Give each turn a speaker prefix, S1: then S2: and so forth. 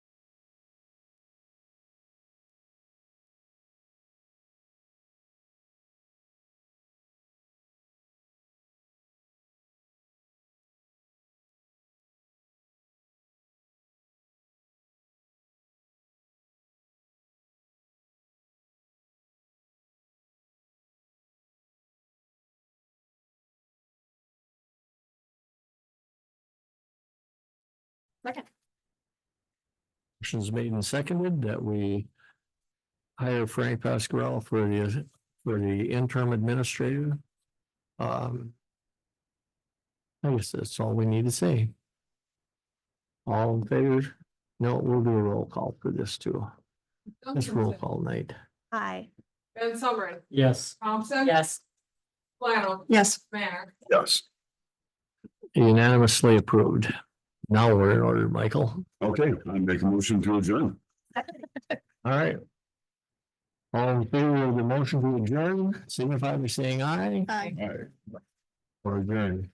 S1: Second.
S2: Motion's made and seconded that we hire Frank Pasquarello for the, for the interim administrator. Um. I guess that's all we need to say. All in favor? No, we'll do a roll call for this too. This roll call night.
S3: Hi.
S1: Ben Summering,
S2: Yes.
S1: Thompson.
S4: Yes.
S1: Flannel,
S3: Yes.
S1: Manner.
S5: Yes.
S2: Unanimously approved. Now we're in order, Michael.
S5: Okay, I make a motion to adjourn.
S2: All right. All in favor of the motion to adjourn, signify by saying aye
S3: Hi.
S5: All right.
S2: or adjourn.